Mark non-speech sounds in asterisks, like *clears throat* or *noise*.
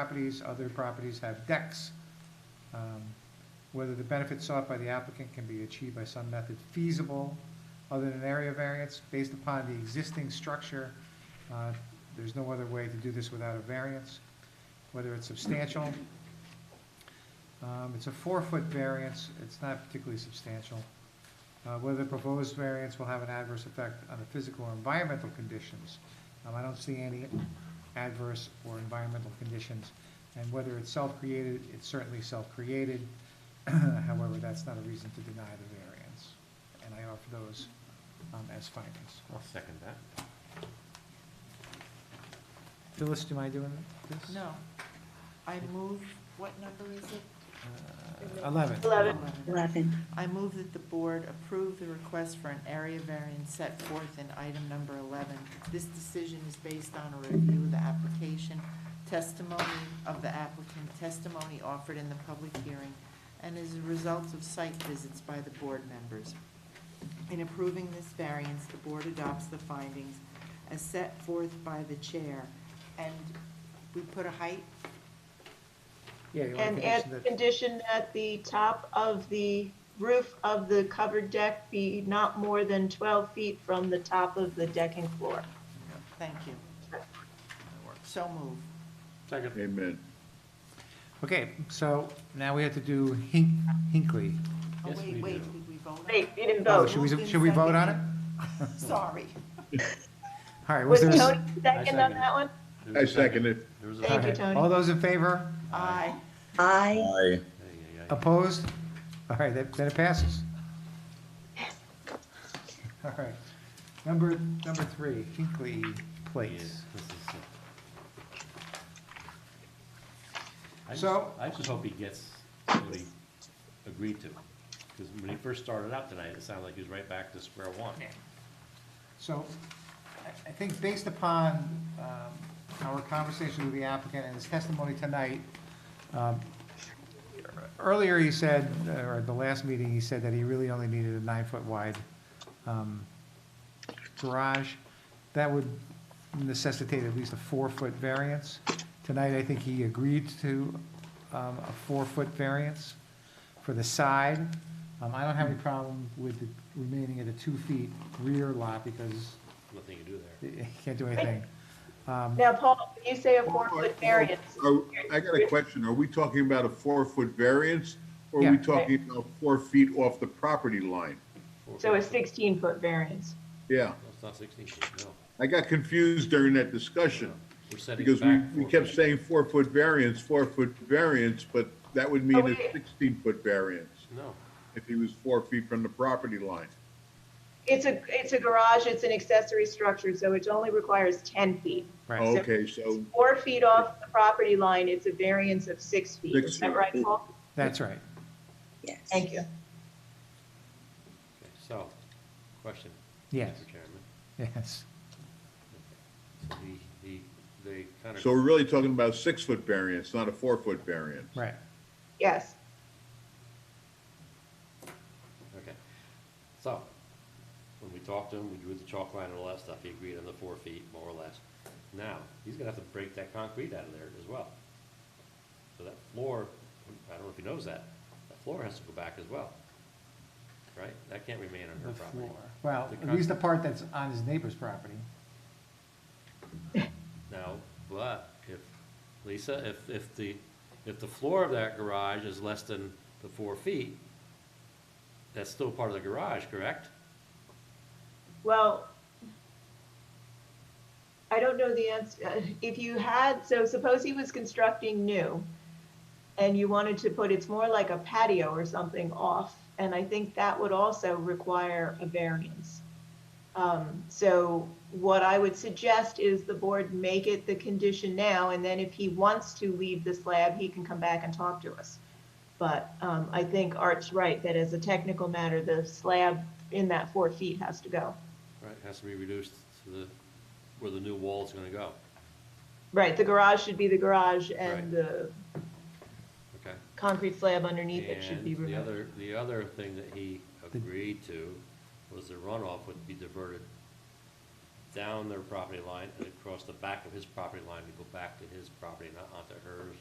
properties, other properties have decks. Um, Whether the benefit sought by the applicant can be achieved by some method feasible other than area variance based upon the existing structure. uh, There's no other way to do this without a variance, whether it's substantial. um, It's a four-foot variance, it's not particularly substantial. Uh, Whether the proposed variance will have an adverse effect on the physical or environmental conditions. Um, I don't see any adverse or environmental conditions, and whether it's self-created, it's certainly self-created. *clears throat* However, that's not a reason to deny the variance, and I offer those um, as findings. I'll second that. Phyllis, do I doing this? No. I move, what number is it? Uh, Eleven. Eleven. Eleven. 11. I move that the board approve the request for an area variance set forth in item number 11. This decision is based on a review of the application, testimony of the applicant, testimony offered in the public hearing, and is a result of site visits by the board members. In approving this variance, the board adopts the findings as set forth by the chair. And we put a height Yeah, you want And to add condition the that- condition that the top of the roof of the covered deck be not more than 12 feet from the top of the decking floor. Thank you. So move. Second. Amen. Okay, so now we have to do Hink- Hinckley. Oh, Yes, we wait, wait, do. did we vote? on Wait, it? you didn't Oh, vote. should we, Moved and should we vote on it? Sorry. All right, was Was there? Tony a- second on second. that one? I second it. There was a Thank you, second. Okay, Tony. All those in favor? Aye. Aye. Aye. Ay, Oh, ay, ay. Opposed? All right, that- then it passes. All right. Number, number three, Hinckley Yeah, Place. this is it. I just- So- I just hope he gets what he agreed to, because when he first started out tonight, it sounded like he was right back to square one. So I- I think based upon um, our conversation with the applicant and his testimony tonight, um, earlier he said, or at the last meeting, he said that he really only needed a nine-foot wide um, garage. That would necessitate at least a four-foot variance. Tonight, I think he agreed to um, a four-foot variance for the side. Um, I don't have any problem with the remaining of the two-feet rear lot because Nothing you do there. you can't do anything. Um, Now, Paul, when you say a four-foot variance, Are- I got a question. Are we talking about a four-foot variance? Or are we Yeah. talking about four feet off the property line? so a 16-foot variance. Yeah, No, It's not sixteen feet, no. I got confused during that discussion We're setting it because we, back. we four kept feet. saying four-foot variance, four-foot variance, but that would mean Oh, a wait. sixteen-foot variance No, if he was four feet from the property line. It's a, it's a garage, it's an accessory structure, so it only requires 10 feet. Right, Okay, so Four feet off the property line, it's a variance of six feet. Six Is that feet. right, Paul? that's right. Yes. Thank you. okay, so, question. Yes, Mr. Chairman. yes. So he, he, they kind of. So we're really talking about a six-foot variance, not a four-foot variance. Right. Yes. Okay, so, when we talked to him, we drew the chalk line and all that stuff, he agreed on the four feet, more or less. Now, he's gonna have to break that concrete out of there as well. So that floor, I don't know if he knows that, that floor has to go back as well, right? That can't remain on her The property. floor. Well, The at least the con- part that's on his neighbor's property. No, but if, Lisa, if, if the, if the floor of that garage is less than the four feet, that's still part of the garage, correct? Well, I don't know the answer. If you had, so suppose he was constructing new and you wanted to put, it's more like a patio or something off. And I think that would also require a variance. Um, so what I would suggest is the board make it the condition now, and then if he wants to leave the slab, he can come back and talk to us. But, um, I think Art's right, that as a technical matter, the slab in that four feet has to go. Right, has to be reduced to the, where the new wall's gonna go, Right, the garage should be the garage Right. and the okay? concrete slab underneath it should be And the removed. other, the other thing that he agreed to was the runoff would be diverted down their property line and across the back of his property line to go back to his property, not onto hers